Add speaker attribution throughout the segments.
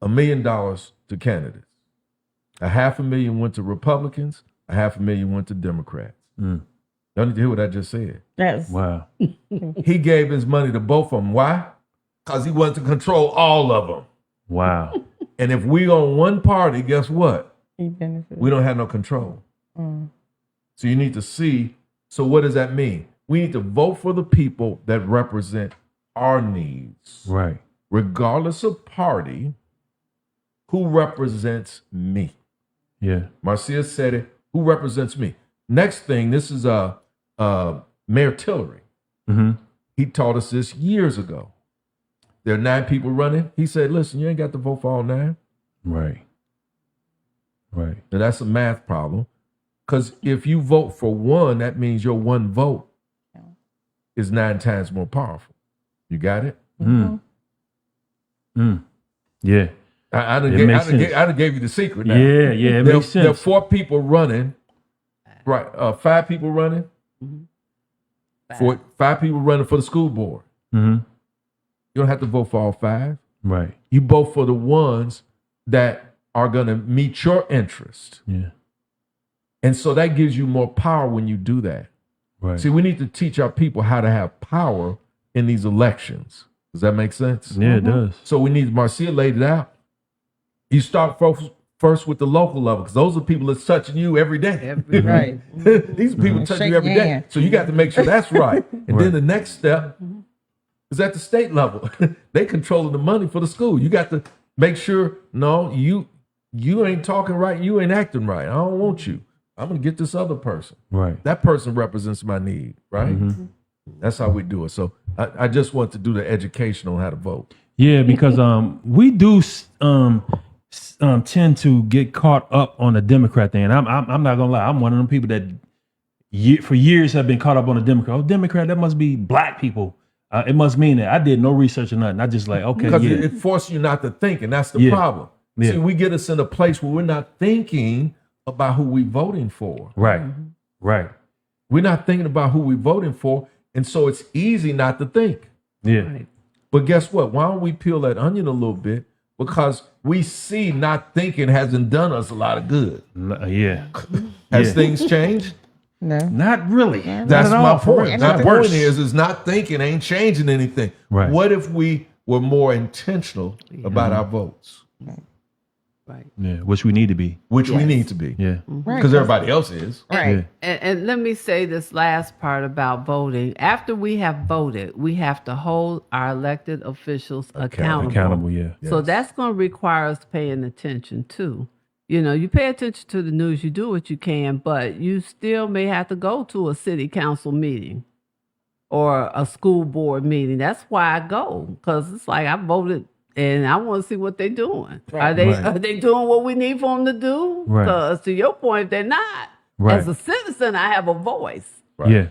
Speaker 1: a million dollars to candidates. A half a million went to Republicans. A half a million went to Democrats.
Speaker 2: Mm.
Speaker 1: Y'all need to hear what I just said.
Speaker 3: That's
Speaker 2: Wow.
Speaker 1: He gave his money to both of them. Why? Because he wanted to control all of them.
Speaker 2: Wow.
Speaker 1: And if we on one party, guess what?
Speaker 3: he benefited.
Speaker 1: We don't have no control.
Speaker 3: Mm.
Speaker 1: So you need to see. So what does that mean? We need to vote for the people that represent our needs,
Speaker 2: right.
Speaker 1: regardless of party. Who represents me?
Speaker 2: Yeah.
Speaker 1: Marcia said it. Who represents me? Next thing, this is uh, uh, Mayor Tillery.
Speaker 2: Mm-hmm.
Speaker 1: He taught us this years ago. There are nine people running. He said, "Listen, you ain't got to vote for all nine.
Speaker 2: Right. Right.
Speaker 1: Now that's a math problem. Because if you vote for one, that means your one vote
Speaker 3: Yeah.
Speaker 1: is nine times more powerful. You got it?
Speaker 3: mm-hmm.
Speaker 2: Mm. Mm. Yeah.
Speaker 1: I, I, done,
Speaker 2: It
Speaker 1: gave, I,
Speaker 2: makes
Speaker 1: done, gave,
Speaker 2: sense.
Speaker 1: I done gave you the secret now.
Speaker 2: Yeah. Yeah. It
Speaker 1: there,
Speaker 2: makes
Speaker 1: there are
Speaker 2: sense.
Speaker 1: four people running, right? Uh, five people running. Four, five people running for the school board.
Speaker 2: mm-hmm.
Speaker 1: You don't have to vote for all five.
Speaker 2: Right.
Speaker 1: You vote for the ones that are going to meet your interest.
Speaker 2: Yeah.
Speaker 1: And so that gives you more power when you do that.
Speaker 2: Right.
Speaker 1: See, we need to teach our people how to have power in these elections. Does that make sense?
Speaker 2: yeah, it does.
Speaker 1: So we need Marcia laid it out. You start first, first with the local level because those are people that's touching you every day.
Speaker 4: Every
Speaker 3: Right. Mm-hmm.
Speaker 1: These people touch
Speaker 3: Shake
Speaker 1: you every day.
Speaker 3: hand.
Speaker 1: So you got to make sure that's right. And
Speaker 2: Right.
Speaker 1: then the next step is at the state level. they controlling the money for the school. You got to make sure, no, you you ain't talking right, you ain't acting right. I don't want you. I'm gonna get this other person.
Speaker 2: Right.
Speaker 1: That person represents my need, right?
Speaker 2: Mhm.
Speaker 1: That's how we do it. So I, I just want to do the education on how to vote.
Speaker 2: Yeah, because um, we do s- um, s- um, tend to get caught up on the Democrat thing. And I'm, I'm I'm not gonna lie, I'm one of them people that ye- for years have been caught up on the Democrat. Oh, Democrat, that must be black people. Uh, it must mean that I did no research or nothing. I just like okay,
Speaker 1: Because
Speaker 2: yeah,
Speaker 1: it, it forces you not to think, and that's the
Speaker 2: Yeah.
Speaker 1: problem.
Speaker 2: Yeah.
Speaker 1: See, we get us in a place where we're not thinking about who we voting for.
Speaker 2: right, right,
Speaker 1: We're not thinking about who we're voting for, and so it's easy not to think.
Speaker 2: yeah,
Speaker 1: But guess what? Why don't we peel that onion a little bit? Because we see not thinking hasn't done us a lot of good.
Speaker 2: L- uh, yeah.
Speaker 1: Has
Speaker 2: Yeah.
Speaker 1: things changed?
Speaker 3: No.
Speaker 2: Not really.
Speaker 1: That's
Speaker 2: Not at
Speaker 1: my
Speaker 2: all, for real.
Speaker 1: point.
Speaker 2: It's
Speaker 1: My
Speaker 2: not
Speaker 1: point
Speaker 2: worse.
Speaker 1: is, is not thinking ain't changing anything.
Speaker 2: Right.
Speaker 1: What if we were more intentional about our votes,
Speaker 4: Right.
Speaker 2: yeah, which we need to be.
Speaker 1: which we need to be,
Speaker 2: Yeah,
Speaker 3: Right.
Speaker 1: because everybody else is.
Speaker 3: Right.
Speaker 2: yeah,
Speaker 4: And, and let me say this last part about voting. After we have voted, we have to hold our elected officials accountable.
Speaker 2: accountable. Yeah,
Speaker 4: So
Speaker 1: Yes.
Speaker 4: that's going to require us paying attention too. You know, you pay attention to the news, you do what you can, but you still may have to go to a city council meeting or a school board meeting. That's why I go because it's like I voted and I want to see what they're doing. Are they
Speaker 2: Right.
Speaker 4: are they doing what we need for them to do?
Speaker 2: Right.
Speaker 4: Because to your point, if they're not,
Speaker 2: Right.
Speaker 4: as a citizen, I have a voice.
Speaker 1: Right.
Speaker 2: yeah,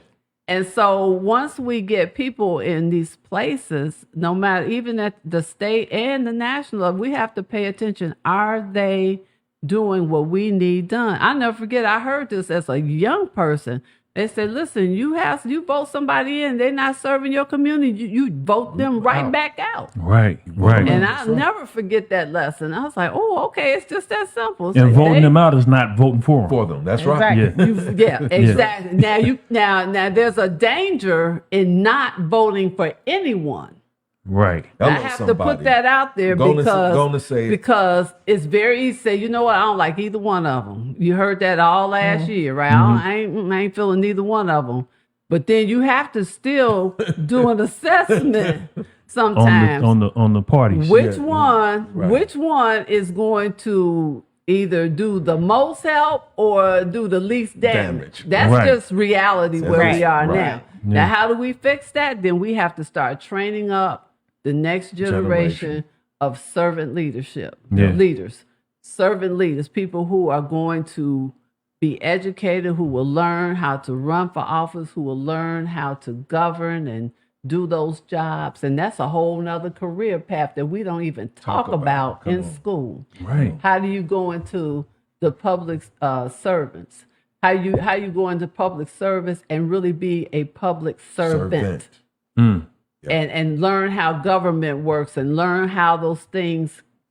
Speaker 4: And so once we get people in these places, no matter even at the state and the national level, we have to pay attention. Are they doing what we need done? I never forget I heard this as a young person. They said, listen, you have you vote somebody in, they're not serving your community. You, you vote them right
Speaker 1: Out.
Speaker 4: back out.
Speaker 2: right, right.
Speaker 4: And
Speaker 2: And,
Speaker 4: I'll never forget that lesson. I was like, oh, okay, it's just that simple. It's like
Speaker 2: voting
Speaker 4: they-
Speaker 2: them out is not voting for them.
Speaker 1: For them, that's right.
Speaker 3: Exactly.
Speaker 2: Yeah.
Speaker 4: you yeah, exactly. Now you now now there's a danger in not voting for anyone.
Speaker 2: Right.
Speaker 1: Hello,
Speaker 4: I have to
Speaker 1: somebody.
Speaker 4: put that out there
Speaker 1: Go on and s-
Speaker 4: because
Speaker 1: go on and say it.
Speaker 4: because it's very easy. to Say, you know what? I don't like either one of them. You heard that all last
Speaker 1: Mm-hmm.
Speaker 4: year, right? I, don't, I ain't I ain't feeling neither one of them. But then you have to still do an assessment sometimes.
Speaker 2: on the on the on the parties.
Speaker 1: Yeah,
Speaker 4: which
Speaker 1: yeah.
Speaker 4: one
Speaker 1: Right.
Speaker 4: which one is going to either do the most help or do the least damage,
Speaker 1: Damage.
Speaker 4: that's
Speaker 2: Right.
Speaker 4: just reality where
Speaker 1: Right.
Speaker 4: we are
Speaker 1: Right.
Speaker 4: now now how do we fix that then we have to start training up the next generation,
Speaker 1: Generation.
Speaker 4: of servant leadership
Speaker 2: Yeah.
Speaker 4: leaders servant leaders people who are going to be educated, who will learn how to run for office, who will learn how to govern and do those jobs. And that's a whole nother career path that we don't even talk,
Speaker 1: Talk about
Speaker 4: about,
Speaker 1: it. Come
Speaker 4: in
Speaker 1: on.
Speaker 4: school.
Speaker 2: Right.
Speaker 4: How do you go into the public uh, servants? How you how you go into public service and really be a public servant
Speaker 1: Servant.
Speaker 2: Mm.
Speaker 1: Yeah.
Speaker 4: and and learn how government works and learn how those things